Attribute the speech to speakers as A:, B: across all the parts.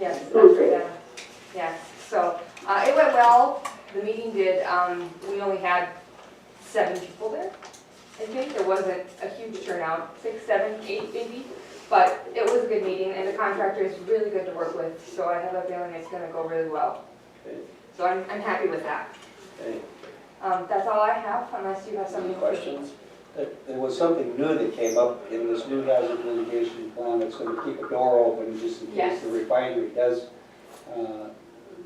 A: Yes, Dr. Dennis. Yes, so uh, it went well. The meeting did, um, we only had seven people there. I think there wasn't a huge turnout, six, seven, eight maybe. But it was a good meeting and the contractor is really good to work with, so I have a feeling it's gonna go really well.
B: Okay.
A: So I'm, I'm happy with that.
B: Any
A: Um, That's all I have unless you have something.
B: questions? There there was something new that came up in this new hazard mitigation plan that's going to keep a door open just in case
A: Yes.
B: the refinery does uh,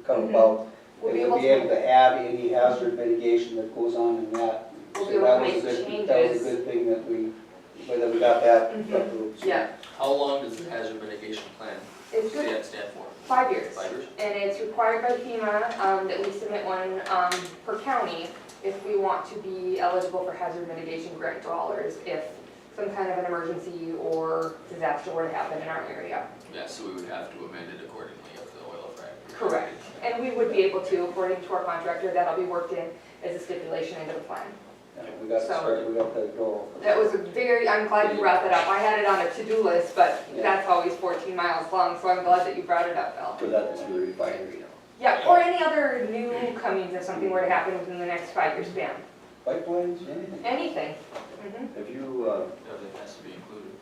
B: come
A: Mhm.
B: about.
A: We'll be
B: And
A: able
B: we'll be able
A: to,
B: to add any hazard mitigation that goes on in that.
A: we'll
B: So
A: be able
B: that
A: to make
B: was a good- That was a
A: changes. Mm-hmm.
B: good thing that we, that we got that approved.
A: Yeah,
C: How long does the hazard mitigation plan
A: it's good,
C: stand, stand for?
A: five years.
C: Five years?
A: And it's required by FEMA um, that we submit one um, per county if we want to be eligible for hazard mitigation grant dollars if some kind of an emergency or disaster were to happen in our area.
C: Yeah, so we would have to amend it accordingly if the oil frac.
A: Correct. And we would be able to, according to our contractor, that'll be worked in as a stipulation into the plan.
B: Yeah, We got,
A: So-
B: started- we got the door open.
A: That was a very, I'm glad you brought that up. I had it on a to-do list, but
B: Yeah.
A: that's always 14 miles long, so I'm glad that you brought it up, Bill.
B: For that to the refinery.
A: Yeah, or any other new comings if something were to happen within the next five-year span.
B: Pipelines, anything?
A: Anything. Mhm.
D: Have you, uh,
C: Everything has to be included.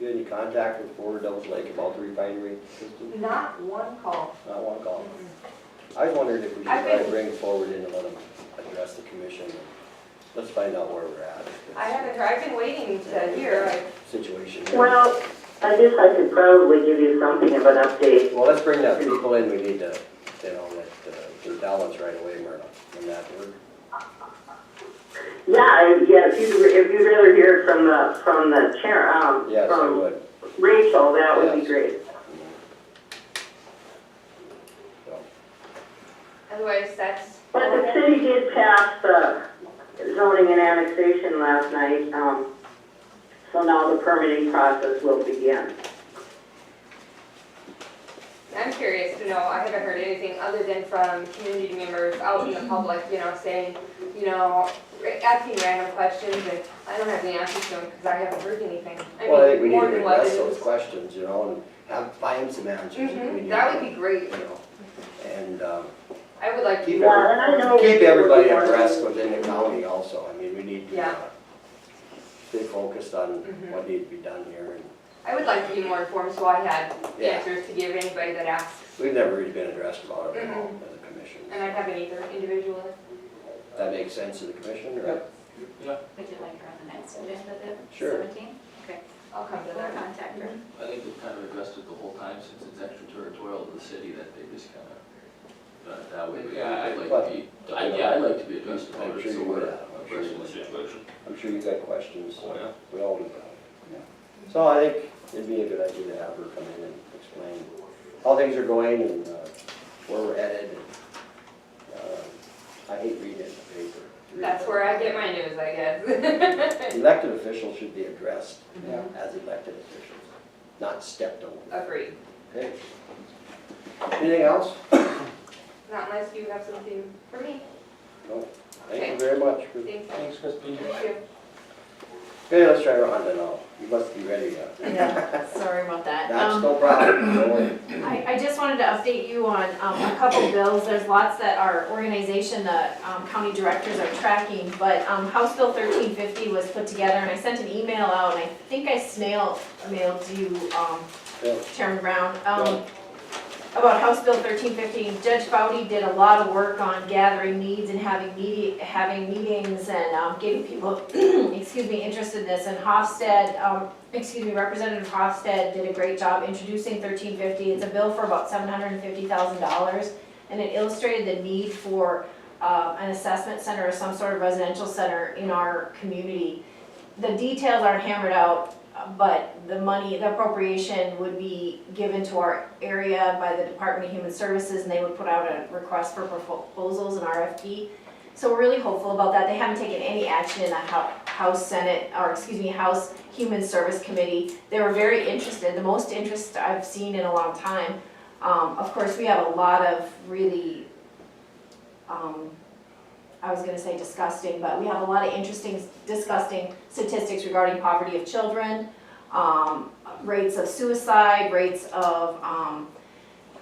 D: you had any contact with Forward Devils Lake about the refinery system?
A: Not one call.
D: Not one call. I was wondering if we should
A: I've
D: try
A: been-
D: to bring forward in and let them address the commission. Let's find out where we're at.
A: I haven't, heard- I've been waiting to hear, I-
D: Situation. here.
E: Well, I guess I could probably give you something of an update.
D: Well, let's bring that people in, we need to, you know, let, uh, the balance right away, Myrna, in that word.
E: Yeah, I- yeah, if you, if you'd rather hear from the, from the chair, um,
D: Yes, I
E: from
D: would.
E: Rachel, that would be
D: Yes.
E: great.
D: So,
A: otherwise that's.
E: But the city did pass the zoning and annexation last night, um, so now the permitting process will begin.
A: I'm curious to know, I haven't heard anything other than from community members out in the public, you know, saying, you know, ra- asking random questions and I don't have the answers to them because I haven't heard anything.
D: Well, I think we
A: mean,
D: need
A: more
D: to
A: than what
D: address
A: it
D: those
A: is.
D: questions, you know, and have, find some answers. if we
A: Mhm,
D: need
A: that would
D: to,
A: be great.
D: You know, and, um,
A: I would like
D: Keep
A: to.
E: Yeah, and I
A: Oh,
E: know. we-
D: Keep everybody abreast within the county also, I mean, we need to uh,
A: Yeah.
D: stay focused on
A: Mhm.
D: what needs to be done here, and
A: I would like to be more informed so I had
D: Yeah.
A: answers to give anybody that asks.
D: we've never really been addressed about it at all
A: Mm-hmm.
D: as a commission.
A: And I'd have an either individual.
D: That makes sense to the commission, right?
C: Yeah,
F: Would you like her on the next agenda then?
D: Sure.
F: Seventeen? Okay,
A: I'll come to
F: we'll
A: that.
F: contact her.
C: I think they've kind of addressed it the whole time since it's extraterritorial to the city that they just kind of done it that way. But yeah, I'd like to be, I, yeah, I'd like to be addressed about
D: I'm
C: it
D: sure
C: so
D: you
C: we're
D: would.
C: abreast of the situation.
D: I'm sure you've got questions,
C: Oh, yeah.
D: we all do that. yeah. So I think it'd be a good idea to have her come in and explain how things are going and uh, where we're headed. and, uh, I hate reading it in the paper.
A: That's where I get my news, I guess.
D: Elected officials should be addressed
B: Yeah.
A: Mm-hmm.
D: as elected officials, not stepped over.
A: Agreed.
D: Okay. Anything else?
A: Not unless you have something for me.
D: No. Thank you very much. for-
A: Thanks.
B: Thanks, Christine.
A: Thank you.
D: Okay, let's try Rhonda now. You must be ready now.
G: Yeah, sorry about that.
D: That's
G: Um,
D: no problem. Don't worry.
G: I, I just wanted to update you on um, a couple bills. There's lots that our organization, the um, county directors are tracking, but um, House Bill 1350 was put together, and I sent an email out, and I think I snail mailed you, um,
D: Yeah.
G: Chairman Brown, um, about House Bill 1350. Judge Bowdy did a lot of work on gathering needs and having media, having meetings and um, getting people, excuse me, interested in this. And Hofstad, um, excuse me, Representative Hofstad did a great job introducing thirteen fifty. It's a bill for about seven hundred and fifty thousand dollars. And it illustrated the need for uh, an assessment center or some sort of residential center in our community. The details aren't hammered out, uh, but the money, the appropriation would be given to our area by the Department of Human Services and they would put out a request for proposals and RFP. So we're really hopeful about that. They haven't taken any action in the Hou- House Senate, or excuse me, House Human Service Committee. They were very interested, the most interest I've seen in a long time. Um, of course, we have a lot of really, um, I was gonna say disgusting, but we have a lot of interesting, disgusting statistics regarding poverty of children, um, rates of suicide, rates of, um,